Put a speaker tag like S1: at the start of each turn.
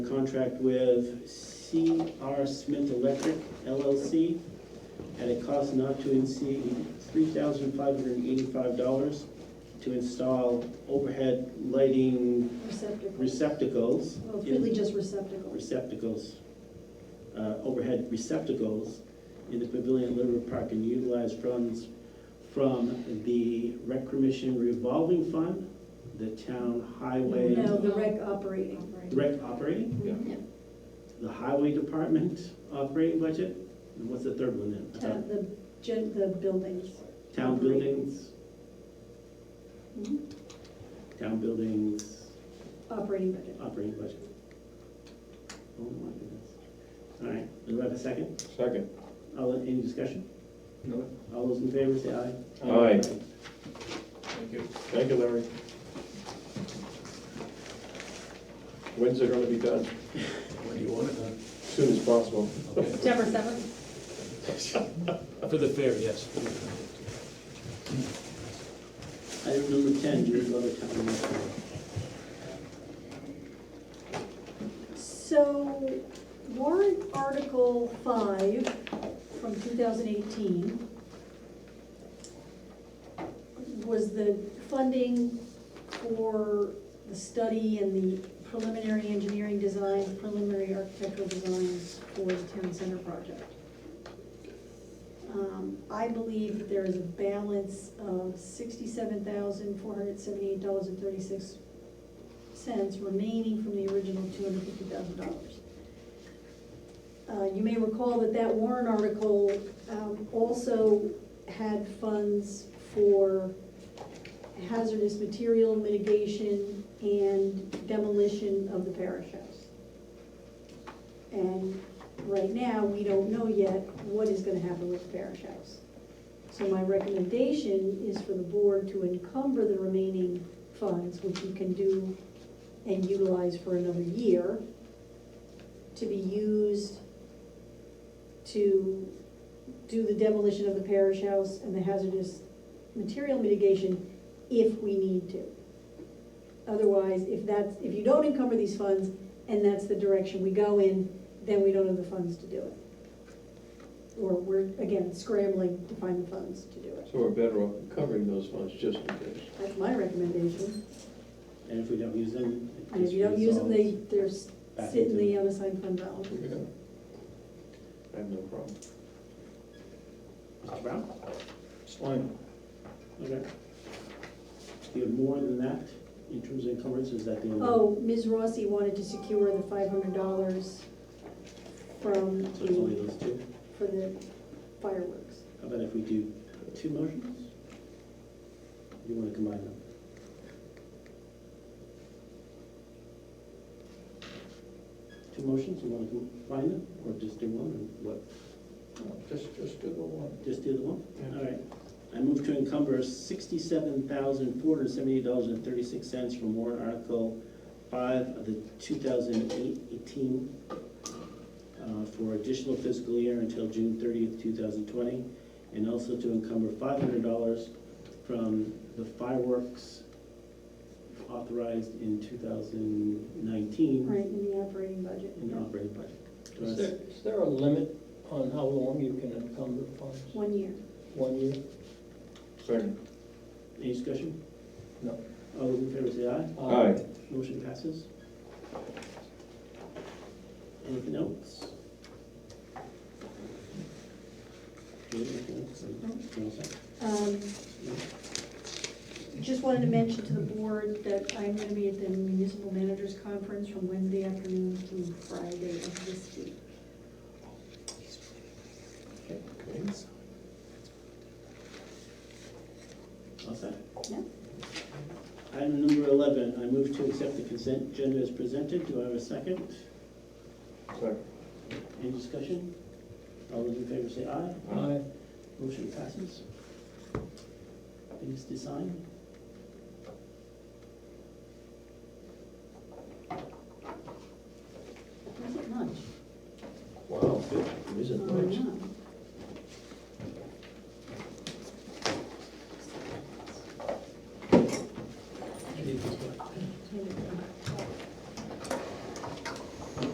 S1: contract with C.R. Smith Electric LLC at a cost not to exceed $3,585 to install overhead lighting
S2: Receptacles.
S1: receptacles.
S2: Well, it's
S1: in-
S2: really just receptacles.
S1: receptacles, uh, overhead receptacles in the pavilion at Liberty Park and utilize funds from the Rec Commission revolving fund, the town highway,
S2: No, the rec operating.
S1: the rec operating,
S3: Yeah.
S1: the highway department operating budget, and what's the third one then? I
S2: Uh,
S1: thought
S2: The, gen- the buildings.
S1: Town buildings,
S2: Mhm.
S1: town buildings,
S2: Operating budget.
S1: operating budget. Oh my goodness. All right, do I have a second?
S3: Second.
S1: All, in- any discussion?
S3: No.
S1: All those in favor, say aye.
S3: Aye. Thank you. Thank you, Larry. When's it gonna be done?
S4: When do you want it done?
S3: Soon as possible.
S4: Okay.
S5: September seventh?
S4: For the fair, yes.
S1: Item number ten, Julie Glover, town administrator.
S2: So warrant article five from two thousand eighteen was the funding for the study and the preliminary engineering design, preliminary architectural designs for the town center project. Um, I believe that there is a balance of sixty-seven thousand, four hundred seventy-eight dollars and thirty-six cents remaining from the original two hundred fifty thousand dollars. Uh, You may recall that that Warren article um, also had funds for hazardous material mitigation and demolition of the parish house. And right now, we don't know yet what is gonna happen with the parish house. So my recommendation is for the board to encumber the remaining funds, which you can do and utilize for another year, to be used to do the demolition of the parish house and the hazardous material mitigation if we need to. Otherwise, if that's, if you don't encumber these funds and that's the direction we go in, then we don't have the funds to do it. Or we're, again, scrambling to find the funds to do it.
S3: So we're better off covering those funds just in case.
S2: That's my recommendation.
S1: And if we don't use them. it
S2: And if
S1: just
S2: you don't use them, they,
S1: resolves.
S2: they're s-
S1: Back
S2: sit in
S1: into- Mm-hmm.
S2: the unassigned fund balance.
S3: Yeah. I have no problem.
S1: Mr. Brown?
S3: Slime.
S1: Okay. Do you have more than that in terms of encumbrances? Is that the only?
S2: Oh, Ms. Rossi wanted to secure the five hundred dollars from
S1: So it's only
S2: the,
S1: those two?
S2: for the fireworks.
S1: How about if we do two motions? You want to combine them? Two motions, you want to combine them, or just do one, or what?
S3: Just, just do the one.
S1: Just do the one?
S3: Yeah.
S1: All right. I move to encumber sixty-seven thousand, four hundred and seventy-eight dollars and thirty-six cents from warrant article five of the two thousand eighteen uh, for additional fiscal year until June thirtieth, two thousand twenty, and also to encumber five hundred dollars from the fireworks authorized in two thousand nineteen
S2: Right, in the operating budget.
S1: Mm-hmm. in the operating budget. Do I
S6: Is
S1: s-
S6: there, is there a limit on how long you can encumber funds?
S2: One year.
S6: One year?
S3: Second.
S1: Any discussion?
S6: No.
S1: All those in favor say aye.
S3: Aye.
S1: Motion passes. Anything else? Julie, anything else? No, sir.
S2: Um, Just wanted to mention to the board that I'm gonna be at the municipal managers conference from Wednesday afternoon to Friday of this week.
S3: Okay.
S1: All set?
S2: Yeah.
S1: Item number eleven, I move to accept the consent agenda as presented. Do I have a second?
S3: Second.
S1: Any discussion? All those in favor say aye.
S6: Aye.
S1: Motion passes. Things to sign?
S2: Was it lunch?
S3: Wow, it
S2: Oh,
S3: isn't much.
S2: yeah.